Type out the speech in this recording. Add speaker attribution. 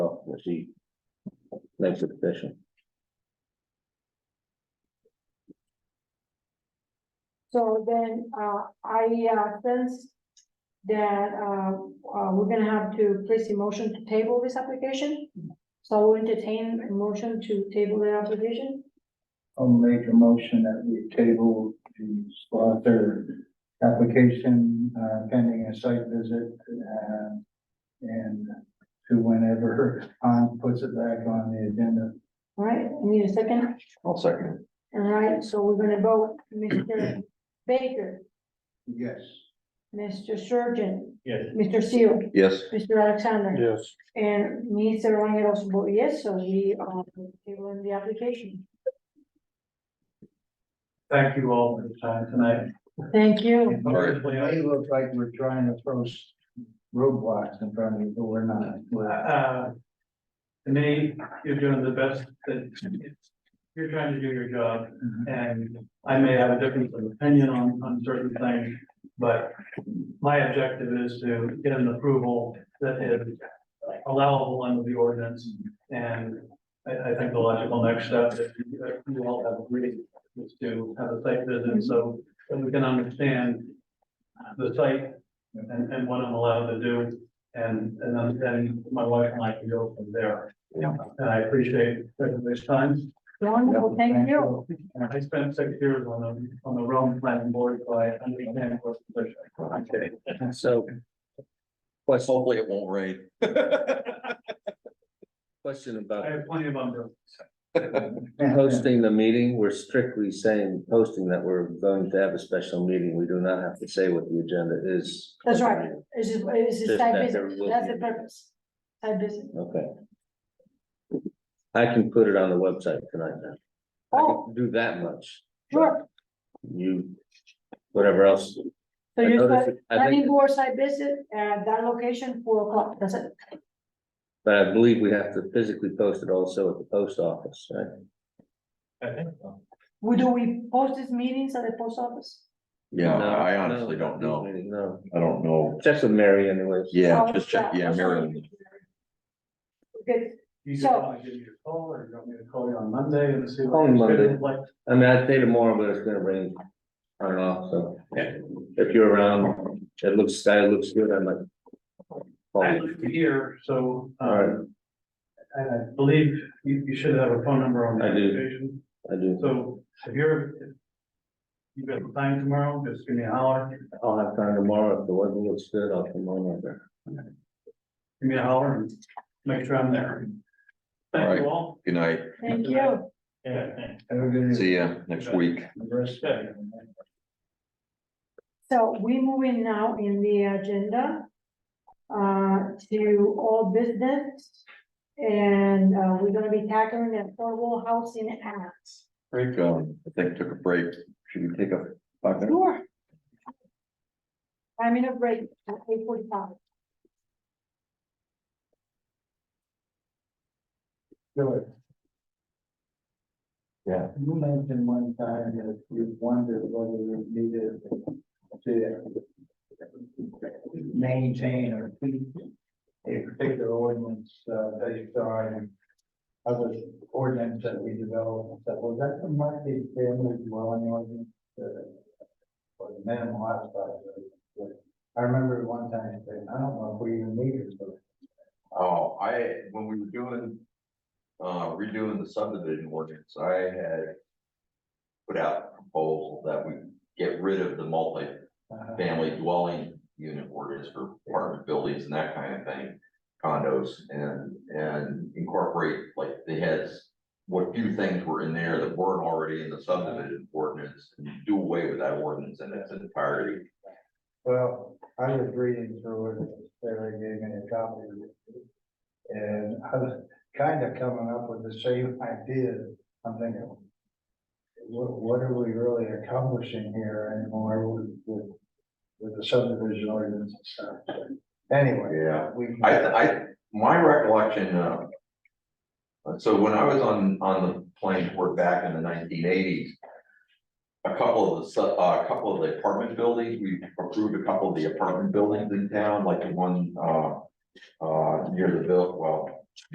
Speaker 1: she makes it official.
Speaker 2: So then, uh, I, uh, sense that, uh, uh, we're gonna have to place a motion to table this application. So we'll entertain a motion to table the application.
Speaker 3: I'll make a motion that we table the slaughter application uh, pending a site visit. uh, And to whenever Han puts it back on the agenda.
Speaker 2: All right, I need a second.
Speaker 1: I'll second.
Speaker 2: All right, so we're gonna vote, Mr. Baker,
Speaker 3: Yes.
Speaker 2: Mr. Surgeon,
Speaker 3: Yes.
Speaker 2: Mr. Seal,
Speaker 1: Yes.
Speaker 2: Mr. Alexander,
Speaker 4: Yes.
Speaker 2: and me, Sarah Rangel, also vote yes, so we, uh, table the application.
Speaker 3: Thank you all for the time tonight.
Speaker 2: Thank you.
Speaker 3: It looks like we're trying to throw s- roadblocks in front of you, but we're not. We're-
Speaker 5: Uh, To me, you're doing the best that, you're trying to do your job, and I may have a difference of opinion on, on certain things, but my objective is to get an approval that is allowable under the ordinance, and I, I think the logical next step, if you if you all have agreed, is to have a site visit, so that we can understand the site and, and what I'm allowed to do, and, and then, then my wife and I can go from there.
Speaker 3: Yeah.
Speaker 5: And I appreciate everybody's time.
Speaker 2: Wonderful, thank you.
Speaker 5: And I spent six years on the, on the Rome planning board, so I understand what's the position.
Speaker 1: Okay, so. Question. Hopefully it won't rain. Question
Speaker 5: I
Speaker 1: about
Speaker 5: have plenty of them.
Speaker 1: hosting the meeting, we're strictly saying posting that we're going to have a special meeting, we do not have to say what the agenda is.
Speaker 2: That's right. This is, this is
Speaker 1: Just
Speaker 2: side
Speaker 1: that there
Speaker 2: business,
Speaker 1: will
Speaker 2: that's
Speaker 1: be-
Speaker 2: the purpose. Side business.
Speaker 1: Okay. I can put it on the website tonight now. I can
Speaker 2: Oh,
Speaker 1: Do that much,
Speaker 2: sure.
Speaker 1: you, whatever else.
Speaker 2: So
Speaker 1: I
Speaker 2: you
Speaker 1: noticed
Speaker 2: said
Speaker 1: it- I
Speaker 2: planning
Speaker 1: think,
Speaker 2: board side visit at that location, four o'clock, that's it.
Speaker 1: but I believe we have to physically post it also at the post office, right?
Speaker 5: I think so.
Speaker 2: We do, we post these meetings at the post office?
Speaker 6: Yeah,
Speaker 1: No,
Speaker 6: I
Speaker 1: no,
Speaker 6: honestly
Speaker 1: not
Speaker 6: don't
Speaker 1: these
Speaker 6: know.
Speaker 1: meetings, No,
Speaker 6: I don't know.
Speaker 1: check with Mary anyways.
Speaker 6: Yeah,
Speaker 2: Oh,
Speaker 6: just check, yeah,
Speaker 2: that's all
Speaker 6: Maryland.
Speaker 2: you do. Okay,
Speaker 5: You just
Speaker 2: So-
Speaker 5: want to give me a call, or you want me to call you on Monday and see. what
Speaker 1: Call me
Speaker 5: your
Speaker 1: Monday.
Speaker 5: schedule's Like,
Speaker 1: I mean, I'd say tomorrow, but it's gonna rain. I don't know, so. If you're around, it looks, sky looks good, I might.
Speaker 5: I
Speaker 1: call you.
Speaker 5: live here, so,
Speaker 1: Alright.
Speaker 5: um, and I believe you, you should have a phone number on the
Speaker 1: I do.
Speaker 5: application.
Speaker 1: I do,
Speaker 5: So if you're, if you've got the time tomorrow, just give me a holler,
Speaker 1: I'll have time tomorrow, if the weather looks good, I'll come on over.
Speaker 5: give me a holler and make sure I'm there. Thank you all.
Speaker 6: Good night.
Speaker 2: Thank you.
Speaker 5: Yeah, thanks.
Speaker 3: Have a good
Speaker 6: See ya next week.
Speaker 3: rest of it.
Speaker 2: So we move in now in the agenda uh, to all business. And uh, we're gonna be tackling the affordable housing act.
Speaker 6: Break, um, I think took a break. Should we take a five minutes?
Speaker 2: Sure. I'm in a break at eight forty-five.
Speaker 3: Good. Yeah. You mentioned one time that you wondered whether we needed to maintain or keep a particular ordinance uh, based on other ordinance that we developed, that was that the multi-family dwelling ordinance? uh, Or the minimum lot size? ordinance? I remember one time saying, I don't know if we even need it, but
Speaker 6: Oh, I, when we were doing, uh, redoing the subdivision ordinance, I had put out a proposal that we get rid of the multi-family
Speaker 3: uh,
Speaker 6: dwelling unit ordinance for apartment buildings and that kind of thing, condos, and, and incorporate, like, they had what few things were in there that weren't already in the subdivision ordinance, and do away with that ordinance in its entirety.
Speaker 3: Well, I was reading through it, Sarah gave me a copy. of it, And I was kind of coming up with the same idea, I'm thinking. What, what are we really accomplishing here anymore with, with, with the subdivision ordinance and stuff? Anyway.
Speaker 6: Yeah.
Speaker 3: we can-
Speaker 6: I, I, my recollection, uh. uh, So when I was on, on the planning board back in the nineteen eighties. A couple of the, su- uh, a couple of the apartment buildings, we approved a couple of the apartment buildings in town, like the one, uh. Uh, near the bill, well,